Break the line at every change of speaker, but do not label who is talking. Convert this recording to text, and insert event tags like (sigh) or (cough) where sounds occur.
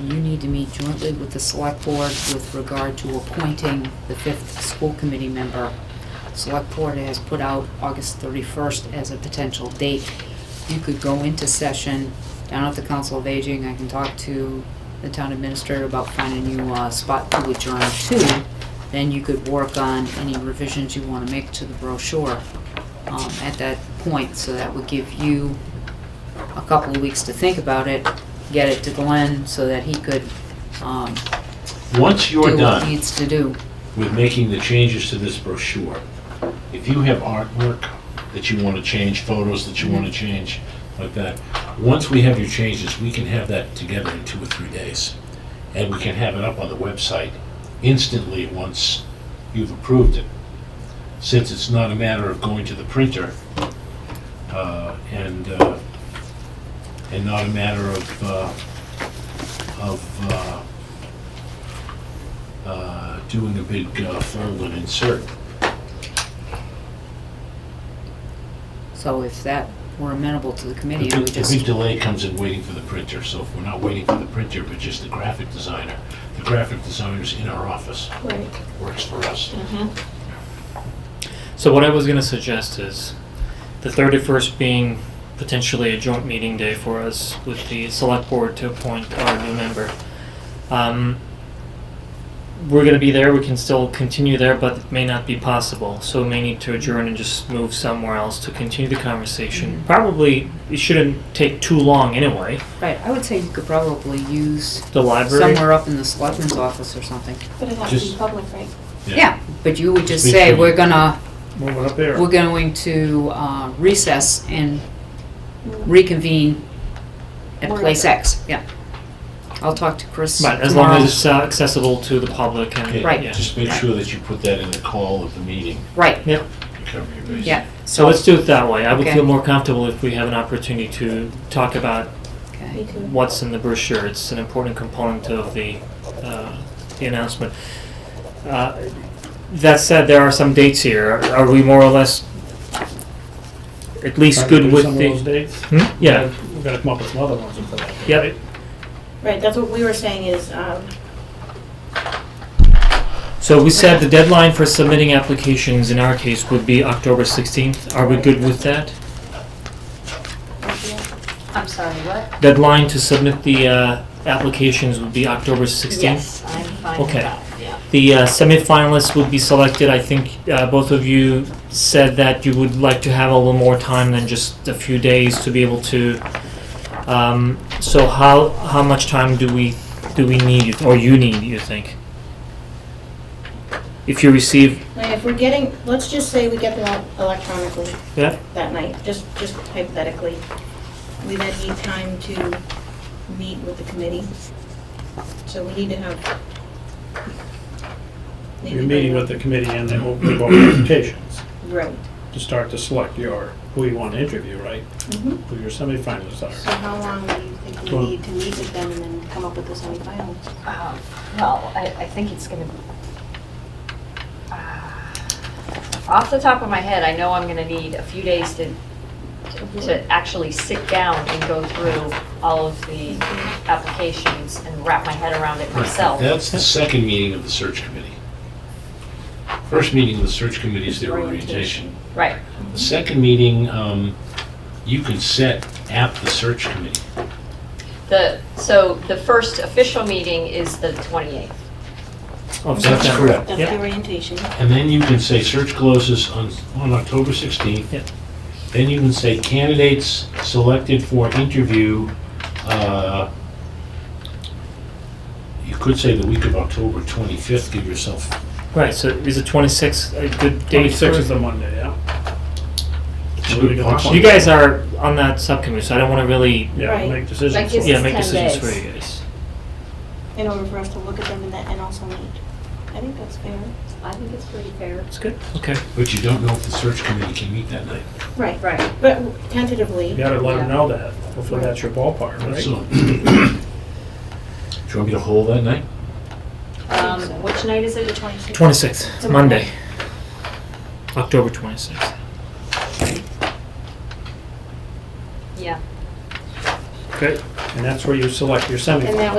you need to meet jointly with the select board with regard to appointing the fifth school committee member. Select board has put out August 31st as a potential date. You could go into session down at the Council of Aging. I can talk to the town administrator about finding you a spot to adjourn to. Then you could work on any revisions you want to make to the brochure um, at that point. So that would give you a couple of weeks to think about it, get it to Glenn so that he could um,
Once
do
you're
what he
done
needs to do.
with making the changes to this brochure, if you have artwork that you want to change, photos that you want to change, like that, once we have your changes, we can have that together in two or three days. And we can have it up on the website instantly once you've approved it. Since it's not a matter of going to the printer uh, and, uh, and not a matter of, uh, of uh, uh, doing a big uh, fold and insert.
So if that were amenable to the
The
committee, I
big,
would
the big
just,
delay comes in waiting for the printer, so if we're not waiting for the printer, but just the graphic designer, the graphic designer's in our office,
Right.
works for us.
So what I was gonna suggest is the thirty-first being potentially a joint meeting day for us with the select board to appoint our new member. Um, we're gonna be there, we can still continue there, but it may not be possible, so we may need to adjourn and just move somewhere else to continue the conversation. Probably, it shouldn't take too long anyway,
right, I would say you could probably use
the library.
somewhere up in the selectman's office or something.
But it has to
Just-
be public, right?
Yeah, but you would just
Make
say,
sure
we're
you-
gonna,
Move it up there.
we're going to uh, recess and reconvene at
Where
place
is it?
X, yeah. I'll talk to Chris tomorrow.
But as long as it's uh, accessible to the public and,
Okay,
Right.
yeah.
Just make sure that you put that in the call of the meeting,
Right,
Yeah.
to cover your bases.
yeah,
So
so,
let's do it that way. I would
Okay.
feel more comfortable if we have an opportunity to talk about
okay,
Me too.
what's in the brochure. It's an important component of the, uh, the announcement. Uh, That said, there are some dates here. Are we more or less at least good with
Some of those
the?
dates.
Hmm? Yeah,
We're gonna come up with some other ones for that.
yep.
Right, that's what we were saying is, um,
So we said the deadline for submitting applications in our case would be October sixteenth. Are we good with that?
I'm sorry, what?
Deadline to submit the, uh, applications would be October sixteenth?
Yes, I'm fine with
Okay.
that, yeah.
The uh, semifinalists would be selected. I think uh, both of you said that you would like to have a little more time than just a few days to be able to. Um, so how how much time do we do we need or you need? You think? If you receive
like, if we're getting, let's just say we get them out electronically
yeah
that night, just, just hypothetically. We then need time to meet with the committee. So we need to have.
You're meeting with the committee and then we'll give out applications
Right.
to start to select your, who you want to interview, right?
Mhm.
Who your semifinalists
Mm-hmm. So
are.
how long do you think we
Well-
need to meet with them and then come up with the semifinals?
Um, Well, I, I think it's gonna, Ah. off the top of my head, I know I'm gonna need a few days to, to actually sit down and go through all of the applications and wrap my head around it myself.
That's the second meeting of the search committee. First meeting of the search committee is their orientation.
Right,
The second meeting, um, you can set at the search committee.
the, so the first official meeting is the 28th.
of
That's
September.
correct.
That's
Yep.
the orientation.
And then you can say search closes on, on October 16th.
Yep.
Then you can say candidates selected for interview, uh, you could say the week of October 25th, give yourself,
Right. So is the twenty sixth a good date?
Twenty-six
for-
is the Monday, yeah?
It's
So
good
we get the
punch.
you guys are on that subcommittee, so I don't want to really
Yeah,
Right.
we'll make decisions.
Like it's-
for it.
yeah make
10
decisions
days.
for you guys.
In order for us to look at them and then, and also meet. I think that's fair.
I think it's pretty fair.
That's good.
Okay.
but you don't know if the search committee can meet that night.
Right,
Right.
but tentatively.
You gotta let them
Yeah.
know that. Hopefully that's your ballpark, right?
So, (clears throat) do you want me to hold that night?
Um, which night is it?
Twenty sixth Monday. October twenty sixth.
Yeah.
Okay.
And that's where you select your semifinalists.
And that